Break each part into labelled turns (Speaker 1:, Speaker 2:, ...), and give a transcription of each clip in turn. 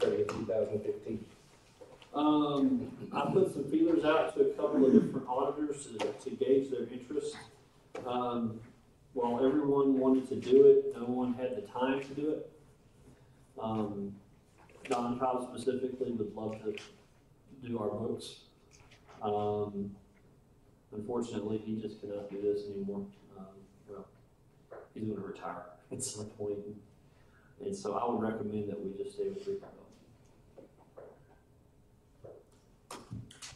Speaker 1: thousand fifteen?
Speaker 2: Um, I put some feelers out to a couple of different auditors to, to gauge their interest. Um, while everyone wanted to do it, no one had the time to do it. Um, Don Powell specifically would love to do our books. Um, unfortunately, he just cannot do this anymore. Um, well, he's gonna retire at some point. And so I would recommend that we just stay with Rico.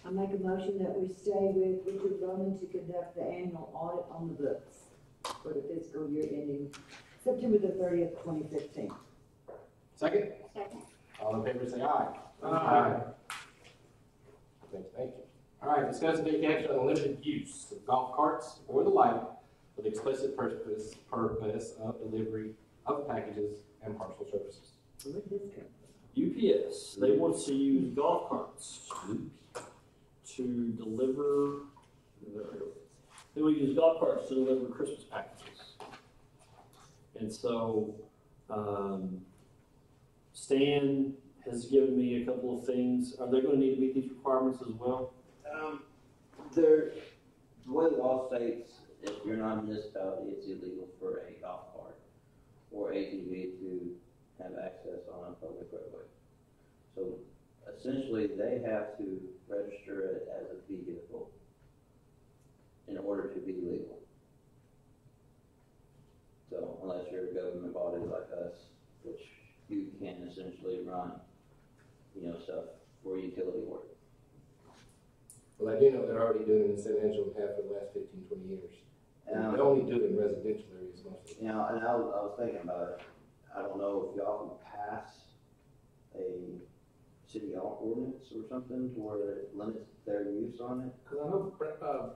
Speaker 3: I make a motion that we stay with Richard Bowman to conduct the annual audit on the books for the fiscal year ending September the thirtieth, twenty fifteen.
Speaker 1: Second?
Speaker 4: Second.
Speaker 1: All in favor, say aye.
Speaker 5: Aye.
Speaker 1: Okay, Thank you. All right, discuss and take action on the limited use of golf carts or the like for the explicit purpose, purpose of delivery of packages and parcel services.
Speaker 3: Where'd this come
Speaker 2: UPS, they want to use golf carts to deliver, they will use golf carts to deliver Christmas packages. And so, um, Stan has given me a couple of things. Are they gonna need to meet these requirements as well?
Speaker 6: Um, there, the way the law states, if you're not a municipality, it's illegal for a golf cart or ATV to have access on a public roadway. So essentially, they have to register it as a vehicle in order to be legal. So unless you're a government body like us, which you can essentially run, you know, stuff for utility work.
Speaker 1: Well, I do know they're already doing it in San Angelo and half for the last fifteen, twenty years.
Speaker 6: Um,
Speaker 1: They only do it in residential areas mostly.
Speaker 6: You know, and I was, I was thinking about it, I don't know if y'all can pass a city hall ordinance or something to where it limits their use on it.
Speaker 5: Cause I know, Bre- uh,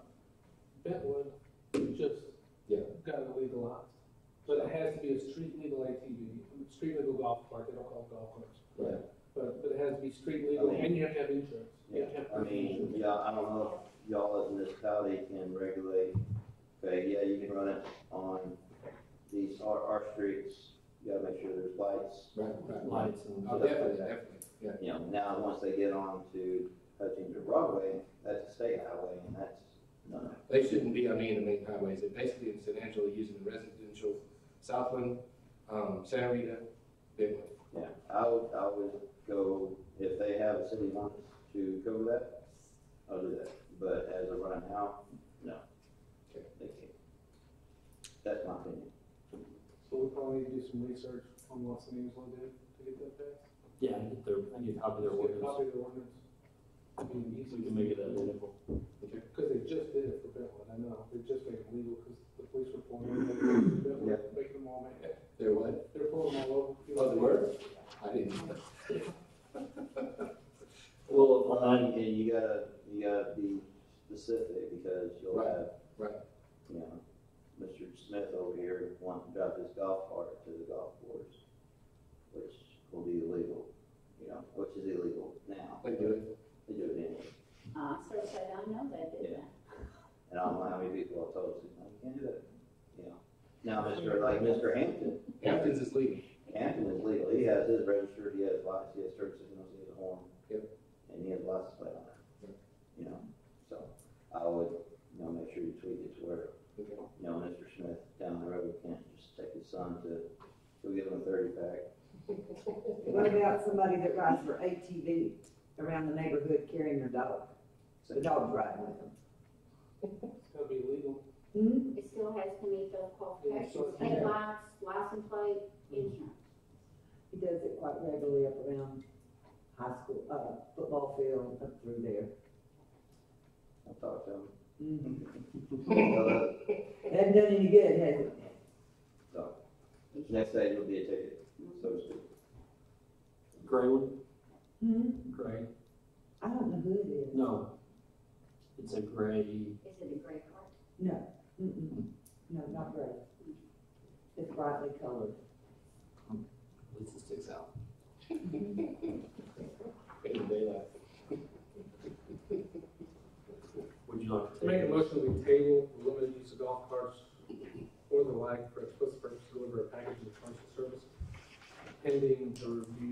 Speaker 5: Bentwood just
Speaker 1: Yeah.
Speaker 5: got it legalized, but it has to be a street legal ATV, street legal golf cart, they don't call them golf carts.
Speaker 1: Right.
Speaker 5: But, but it has to be street legal,
Speaker 6: I mean-
Speaker 5: and you have to have insurance. You have to have
Speaker 6: I mean, yeah, I don't know if y'all as a municipality can regulate, okay, yeah, you can run it on these, our, our streets, you gotta make sure there's lights.
Speaker 1: Right, right.
Speaker 2: Lights and.
Speaker 1: Oh, definitely, definitely, yeah.
Speaker 6: You know, now, once they get on to Hutchins or Broadway, that's a state highway, and that's, no, no.
Speaker 1: They shouldn't be on any of the main highways. They're basically in San Angelo using the residential Southland, um, Santa Rita, Bentwood.
Speaker 6: Yeah, I would, I would go, if they have a city wants to cover that, I'll do that, but as of right now, no.
Speaker 1: Okay.
Speaker 6: They can't. That's my opinion.
Speaker 5: So we probably need to do some research on Los Angeles one day to get that passed.
Speaker 2: Yeah, I get their, I get a copy of their ordinance.
Speaker 5: Just get a Copy of the ordinance. I mean,
Speaker 2: We
Speaker 5: easy.
Speaker 2: can make it identical.
Speaker 5: Cause they just did it for Bentwood, I know, they just made it legal, cause the police were pulling them, they were making Bentwood, making them all, make it.
Speaker 1: They're what?
Speaker 5: they're pulling them all over.
Speaker 1: Oh, they were? I didn't.
Speaker 2: Well,
Speaker 6: Well, and, and you gotta, you gotta be specific, because you'll
Speaker 1: Right,
Speaker 6: have.
Speaker 1: right.
Speaker 6: You know, Mr. Smith over here wanting to drive his golf cart to the golf course, which will be illegal, you know, which is illegal now.
Speaker 1: They do it.
Speaker 6: They do it anyway.
Speaker 4: I sort of said, I know that, didn't I?
Speaker 6: And I don't know how many people I told, no, you can't do that, you know. Now, Mr., like Mr. Hampton,
Speaker 1: Hamptons is legal.
Speaker 6: Hampton is legal, he has his registered, he has lights, he has turn signals, he has a horn.
Speaker 1: Yep.
Speaker 6: And he has license plate on it,
Speaker 1: Yep.
Speaker 6: you know, so I would, you know, make sure you tweak it to where,
Speaker 1: Okay.
Speaker 6: you know, Mr. Smith down the road can't just take his son to, go give him a thirty pack.
Speaker 3: from? What about somebody that rides for ATV around the neighborhood carrying their dog? The dog's riding with them.
Speaker 5: It's gotta be legal,
Speaker 3: Hmm?
Speaker 4: It still has to meet those qualifications,
Speaker 5: Yeah.
Speaker 4: state lights, license plate, insurance.
Speaker 3: He does it quite regularly up around high school, uh, football field up through there.
Speaker 6: I'll talk to him.
Speaker 4: Mm.
Speaker 6: uh,
Speaker 3: Mhm.
Speaker 6: So that-
Speaker 3: Hasn't done any good, has it?
Speaker 6: So, next day it'll be a ticket, so to speak.
Speaker 2: gray one,
Speaker 3: Hmm?
Speaker 2: gray,
Speaker 3: I don't know who it is.
Speaker 2: no. It's a gray.
Speaker 4: Is it a gray card?
Speaker 3: No, mm-mm, no, not gray. It's brightly colored.
Speaker 1: At least it sticks out. In the daylight.
Speaker 2: Would you like to take?
Speaker 5: make a
Speaker 2: it?
Speaker 5: motion, we table the limited use of golf carts or the like for explicit purpose to deliver a package of commercial service pending the review